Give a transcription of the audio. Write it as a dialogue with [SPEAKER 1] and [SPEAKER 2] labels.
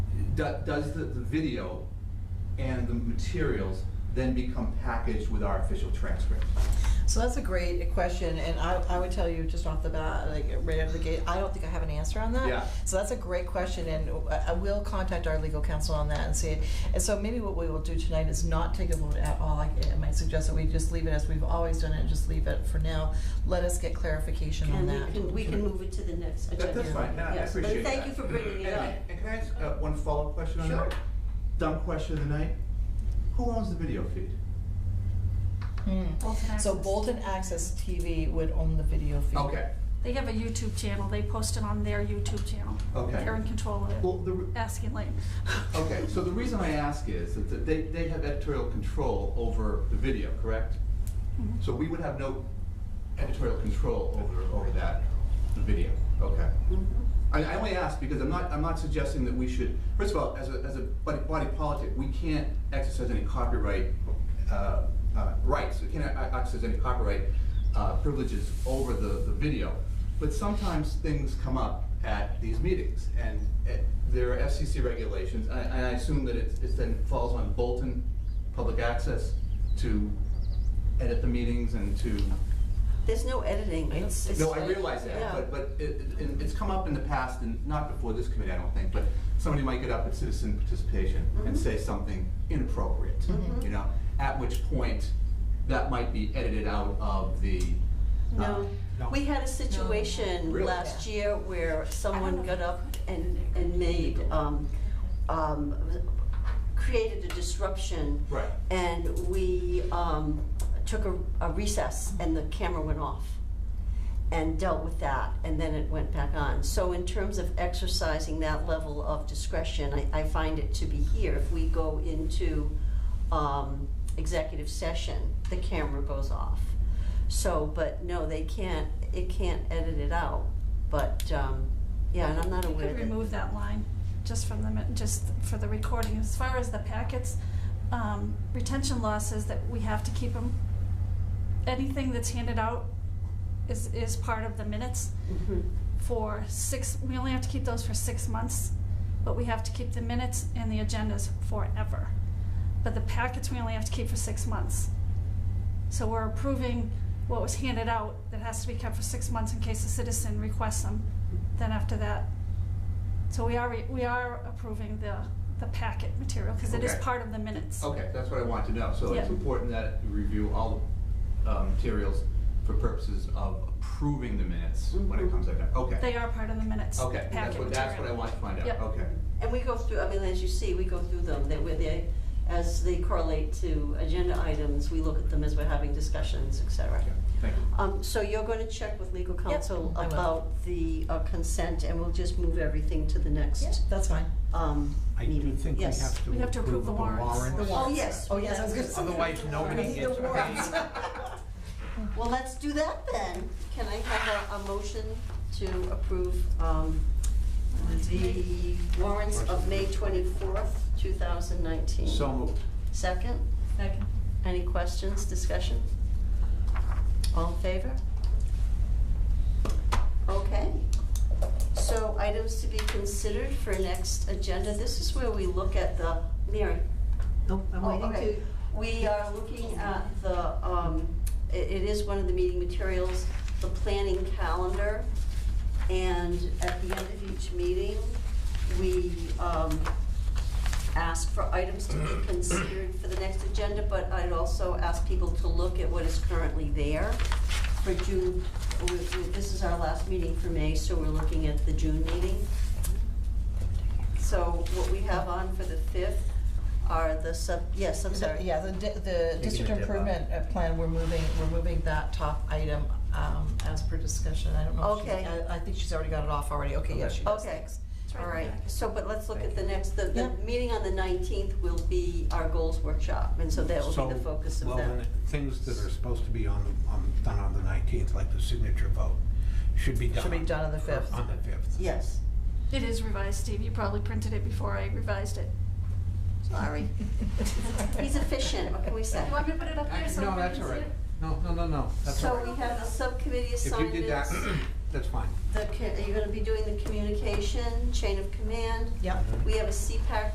[SPEAKER 1] do- does the, the video and the materials then become packaged with our official transcript?
[SPEAKER 2] So that's a great question, and I, I would tell you just off the bat, like right out of the gate, I don't think I have an answer on that.
[SPEAKER 1] Yeah.
[SPEAKER 2] So that's a great question, and I I will contact our legal counsel on that and see. And so maybe what we will do tonight is not take a vote at all. I, I might suggest that we just leave it as we've always done it, and just leave it for now. Let us get clarification on
[SPEAKER 3] And
[SPEAKER 2] that.
[SPEAKER 3] we can, we can move it to the next
[SPEAKER 1] That,
[SPEAKER 3] agenda.
[SPEAKER 1] that's fine, no, I
[SPEAKER 3] Yes,
[SPEAKER 1] appreciate that.
[SPEAKER 3] But thank you for bringing it
[SPEAKER 1] And-
[SPEAKER 3] up.
[SPEAKER 1] And can I ask uh, one follow-up question on that?
[SPEAKER 3] Sure.
[SPEAKER 1] Dumb question of the night, who owns the video feed?
[SPEAKER 2] Hmm.
[SPEAKER 4] Bolton
[SPEAKER 2] So
[SPEAKER 4] Access.
[SPEAKER 2] Bolton Access TV would own the video feed.
[SPEAKER 1] Okay,
[SPEAKER 4] They have a YouTube channel. They post it on their YouTube channel.
[SPEAKER 1] Okay.
[SPEAKER 4] They're in control of
[SPEAKER 1] well,
[SPEAKER 4] it.
[SPEAKER 1] the, re-
[SPEAKER 4] Ask and Lane.
[SPEAKER 1] okay, so the reason I ask is that- that they, they have editorial control over the video, correct?
[SPEAKER 3] Mm-hmm.
[SPEAKER 4] Mhm.
[SPEAKER 1] So we would have no editorial control over, over that video, okay?
[SPEAKER 3] Mhm.
[SPEAKER 1] I, I only ask because I'm not, I'm not suggesting that we should, first of all, as a, as a body, body politic, we can't exercise any copyright, uh, uh, rights, we can't e- exercise any copyright, uh, privileges over the, the video. But sometimes things come up at these meetings, and, uh there are FCC regulations, and I, and I assume that it's, it's then falls on Bolton Public Access to edit the meetings and to
[SPEAKER 3] There's no editing, it's. it's-
[SPEAKER 1] no, I realize
[SPEAKER 3] yeah.
[SPEAKER 1] that, but, but it, it- it- it's come up in the past, and not before this committee, I don't think, but somebody might get up at citizen participation and
[SPEAKER 4] Mm-hmm.
[SPEAKER 3] Mhm.
[SPEAKER 1] say something inappropriate,
[SPEAKER 2] Mhm.
[SPEAKER 1] you know? At which point, that might be edited out of the. uh,
[SPEAKER 3] No, we had a situation
[SPEAKER 1] Really?
[SPEAKER 3] last year where
[SPEAKER 4] I
[SPEAKER 3] someone
[SPEAKER 4] don't know.
[SPEAKER 3] got up and, and made, um, um, created a disruption.
[SPEAKER 1] Right.
[SPEAKER 3] And we, um, took a a recess and the camera went off and dealt with that, and then it went back on. So in terms of exercising that level of discretion, I, I find it to be here. If we go into, um, executive session, the camera goes off. So, but no, they can't, it can't edit it out, but, um, yeah, and I'm not
[SPEAKER 4] You
[SPEAKER 3] aware
[SPEAKER 4] could
[SPEAKER 3] that.
[SPEAKER 4] remove that line, just from the, min- just for the recording. As far as the packets, um, retention law says that we have to keep them. Anything that's handed out is, is part of the minutes
[SPEAKER 3] Mhm.
[SPEAKER 4] for six, we only have to keep those for six months, but we have to keep the minutes and the agendas forever. But the packets, we only have to keep for six months. So we're approving what was handed out that has to be kept for six months in case a citizen requests them, then after that. So we are, we are approving the, the packet material, because it is
[SPEAKER 1] Okay.
[SPEAKER 4] part of the minutes.
[SPEAKER 1] Okay, that's what I want to know, so it's
[SPEAKER 4] Yeah.
[SPEAKER 1] important that we review all the uh, materials for purposes of approving the minutes when it
[SPEAKER 3] Mhm.
[SPEAKER 1] comes like that, okay.
[SPEAKER 4] Mm-hmm. They are part of the minutes,
[SPEAKER 1] Okay,
[SPEAKER 4] packet
[SPEAKER 1] that's
[SPEAKER 4] material.
[SPEAKER 1] what, that's what I want to find out,
[SPEAKER 4] Yep.
[SPEAKER 1] okay.
[SPEAKER 3] And we go through, I mean, as you see, we go through them, that where they, as they correlate to agenda items, we look at them as we're having discussions, et cetera.
[SPEAKER 1] Okay, Thank you.
[SPEAKER 3] Um, so you're gonna check with legal counsel
[SPEAKER 2] I will.
[SPEAKER 3] about the uh, consent, and we'll just move everything to the
[SPEAKER 2] Yeah,
[SPEAKER 3] next,
[SPEAKER 2] that's fine.
[SPEAKER 3] um,
[SPEAKER 5] I
[SPEAKER 3] meeting.
[SPEAKER 5] do think we
[SPEAKER 3] Yes.
[SPEAKER 5] have
[SPEAKER 4] We
[SPEAKER 5] to
[SPEAKER 4] have to approve
[SPEAKER 5] approve
[SPEAKER 4] the
[SPEAKER 5] the
[SPEAKER 4] warrants. The
[SPEAKER 5] warrants.
[SPEAKER 3] Oh, yes.
[SPEAKER 2] Oh, yes, I was gonna say.
[SPEAKER 5] Otherwise,
[SPEAKER 2] We
[SPEAKER 5] nobody
[SPEAKER 2] need the
[SPEAKER 5] gets
[SPEAKER 2] warrants.
[SPEAKER 5] paid.
[SPEAKER 3] Well, let's do that then. Can I have a, a motion to approve, um, the warrants of May twenty-fourth, two thousand nineteen?
[SPEAKER 5] So moved.
[SPEAKER 3] Second?
[SPEAKER 4] Second.
[SPEAKER 3] Any questions, discussion? All in favor? Okay. So items to be considered for next agenda, this is where we look at the, Mary?
[SPEAKER 6] Nope, I'm
[SPEAKER 3] Oh,
[SPEAKER 6] waiting to,
[SPEAKER 3] okay. We are looking at the, um, i- it is one of the meeting materials, the planning calendar. And at the end of each meeting, we, um, ask for items to be considered for the next agenda, but I'd also ask people to look at what is currently there for June. we- we- This is our last meeting for May, so we're looking at the June meeting. So what we have on for the fifth are the sub, yes, I'm sorry.
[SPEAKER 2] Yeah, the, di- the district
[SPEAKER 5] dip out.
[SPEAKER 2] improvement uh, plan, we're moving, we're moving that top item um, as per discussion. I don't know. if she-
[SPEAKER 3] Okay.
[SPEAKER 2] I- I think she's already got it off already. Okay, yeah,
[SPEAKER 5] Okay.
[SPEAKER 2] she does.
[SPEAKER 3] Okay, Oh,
[SPEAKER 4] It's right
[SPEAKER 3] all
[SPEAKER 4] in the
[SPEAKER 3] right,
[SPEAKER 4] packet.
[SPEAKER 3] so, but let's look at the next, the, the
[SPEAKER 2] Yeah.
[SPEAKER 3] meeting on the nineteenth will be our goals workshop, and so that will
[SPEAKER 5] So,
[SPEAKER 3] be the focus of
[SPEAKER 5] well, then
[SPEAKER 3] that.
[SPEAKER 5] the Things that are supposed to be on, the- on, done on the nineteenth, like the signature vote, should be done.
[SPEAKER 2] Should be done on the 5th.
[SPEAKER 5] On the fifth.
[SPEAKER 3] Yes,
[SPEAKER 4] It is revised, Steve. You probably printed it before I revised it.
[SPEAKER 3] sorry, he's efficient, what can we say?
[SPEAKER 4] You want me to put it up there so
[SPEAKER 5] Uh, No,
[SPEAKER 4] everybody
[SPEAKER 5] that's
[SPEAKER 4] can
[SPEAKER 5] all
[SPEAKER 4] see
[SPEAKER 5] right.
[SPEAKER 4] it?
[SPEAKER 5] No, no, no, no, that's all
[SPEAKER 3] So
[SPEAKER 5] right.
[SPEAKER 3] we have the subcommittee
[SPEAKER 5] If you
[SPEAKER 3] assignments.
[SPEAKER 5] did that, that's fine.
[SPEAKER 3] The, co- are you gonna be doing the communication, chain of command?
[SPEAKER 5] Mm-hmm.
[SPEAKER 2] Yep.
[SPEAKER 3] We have a CPAC